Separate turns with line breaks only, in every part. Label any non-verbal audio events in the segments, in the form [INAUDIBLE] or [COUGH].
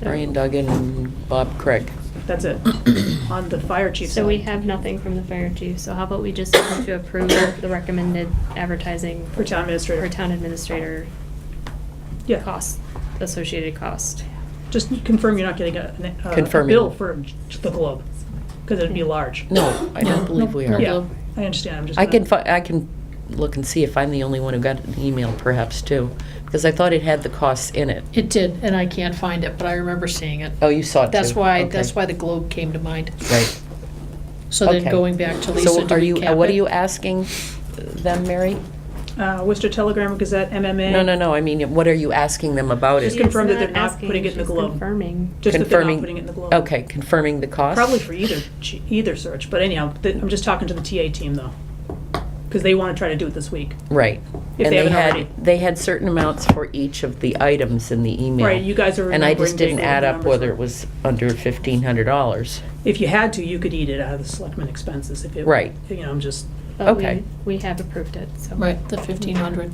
Brian Duggan and Bob Craig. [COUGHS]
That's it, on the fire chief side.
So we have nothing from the fire chief, so how about we just vote to approve [COUGHS] the recommended advertising
For town administrator.
for town administrator
Yeah,
cost, associated cost?
just confirm you're not getting a, a- a
Confirming.
bill for the globe, because it'd be large.
No, I don't believe we are.
Yeah, I understand, I'm just.
I can,
gonna-
fi- I can look and see if I'm the only one who got an email perhaps too, because I thought it had the costs in it.
It did, and I can't find it, but I remember seeing it.
Oh, you saw it too?
That's why,
Okay.
that's why the globe came to mind.
Right.
So then
Okay.
going back to Lisa,
So
do
are
we
you, uh,
cap
what are
it?
you asking them, Mary?
Uh, Worcester Telegram, Gazette, MMA.
No, no, no, I mean, what are you asking them about
Just
it?
confirm that
She's
they're not
asking,
putting it in the
she's
Globe.
Confirming.
Just that they're not
confirming-
putting it in the globe.
Okay, confirming the cost?
Probably for either, ch- either search, but anyhow, th- I'm just talking to the TA team though, because they want to try to do it this week.
Right.
If
And
they haven't
had-
already.
They had certain amounts for each of the items in the email.
Right, you guys are
And I just
remembering
didn't
big
add up
numbers.
whether it was under fifteen hundred dollars.
If you had to, you could eat it out of the selectmen expenses if it.
Right.
You know, I'm just,
but we-
Okay.
We have approved it, so.
Right, the fifteen hundred.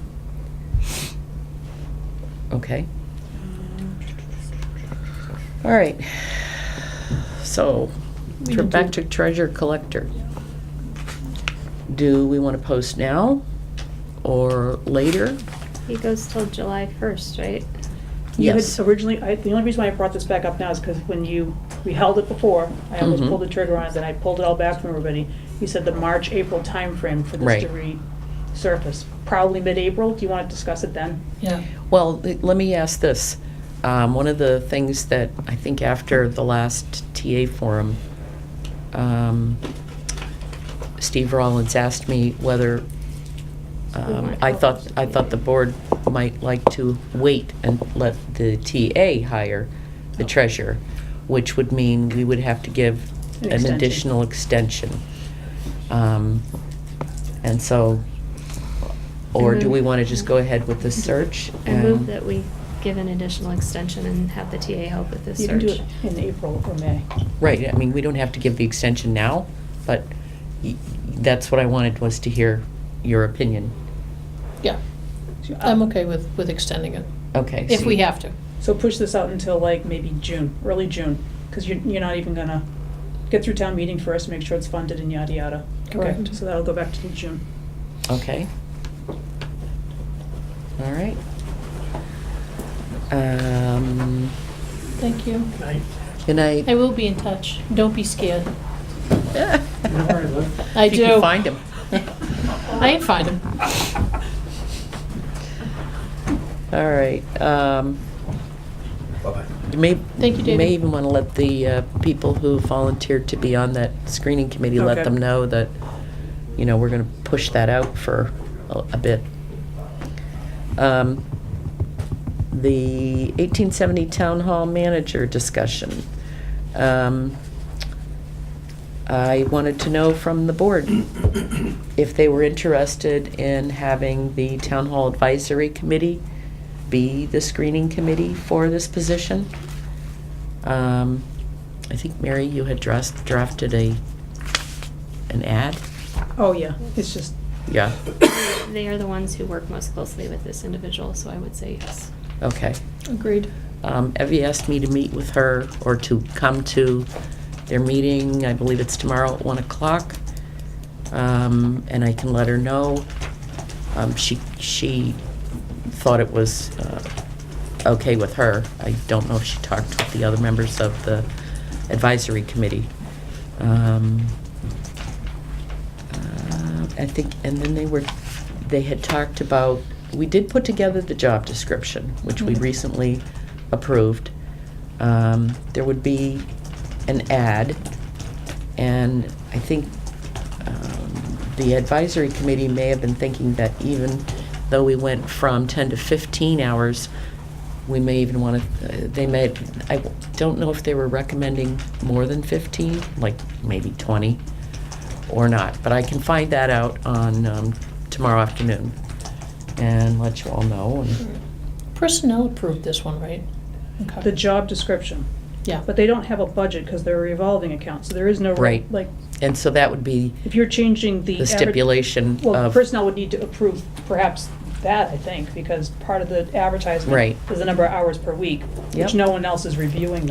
Okay. All right. So,
We
tr-
need
back to
to-
treasure collector. Do we want to post now or later?
He goes till July first, right?
you had
Yes.
originally, I, the only reason why I brought this back up now is because when you, we held it before, I almost
Mhm.
pulled the trigger on it, then I pulled it all back from everybody. You said the March, April timeframe for this to
Right.
resurface, probably mid-April. Do you want to discuss it then?
Yeah.
Well, th- let me ask this. Um, One of the things that I think after the last TA forum, um, Steve Rollins asked me whether, um, I thought, I thought the board might like to wait and let the TA hire the treasurer, which would mean we would have to give
An
an
extension.
additional extension. Um, And so, or do we want to just go ahead with the search?
I move
and-
that we give an additional extension and have the TA help with this
You can do
search.
it in April or May.
Right, I mean, we don't have to give the extension now, but y- that's what I wanted was to hear your opinion.
Yeah, I'm okay with, with extending it,
Okay.
if
so
we
you-
have to.
Uh, So push this out until like maybe June, early June, because you're, you're not even gonna get through town meeting first, make sure it's funded and yada yada. Okay,
Correct.
So that'll go back to June.
Okay. All right. Um,
Thank you.
Good night. [LAUGHS]
I will be in touch. Don't be scared.
If
I
you can
do.
find him.
I ain't find him.
[LAUGHS] All right. um,
Bye-bye.
You may,
Thank you,
you may
David.
even want to let the uh, people who volunteered to be on that screening committee, let
Okay.
them know that, you know, we're going to push that out for a a bit. Um, The 1870 Town Hall Manager discussion. Um, I wanted to know from the board if they were interested in having the Town Hall Advisory Committee be the screening committee for this position. Um, I think, Mary, you had dressed, drafted a, an ad?
Oh, yeah, it's just,
Yeah,
They are the ones who work most closely with this individual, so I would say yes.
okay.
Agreed.
Um, Evie asked me to meet with her or to come to their meeting, I believe it's tomorrow at one o'clock. Um, and I can let her know. Um, she, she thought it was, uh, okay with her. I don't know if she talked with the other members of the advisory committee. Um, uh, I think, and then they were, they had talked about, we did put together the job description, which we
Mhm.
recently approved. Um, There would be an ad, and I think um, the advisory committee may have been thinking that even though we went from 10 to 15 hours, we may even want to, they may, I don't know if they were recommending more than 15, like maybe 20 or not, but I can find that out on um, tomorrow afternoon and let you all know. and-
Personnel approved this one, right? Okay.
the job description,
Yeah.
but they don't have a budget because they're a revolving account, so there is no.
Right.
Like,
And so that would be
if you're changing the.
the
adver-
stipulation
Well,
of,
personnel would need to approve perhaps that, I think, because part of the advertisement
Right.
is the number of hours per week,
Yep.
which no one else is reviewing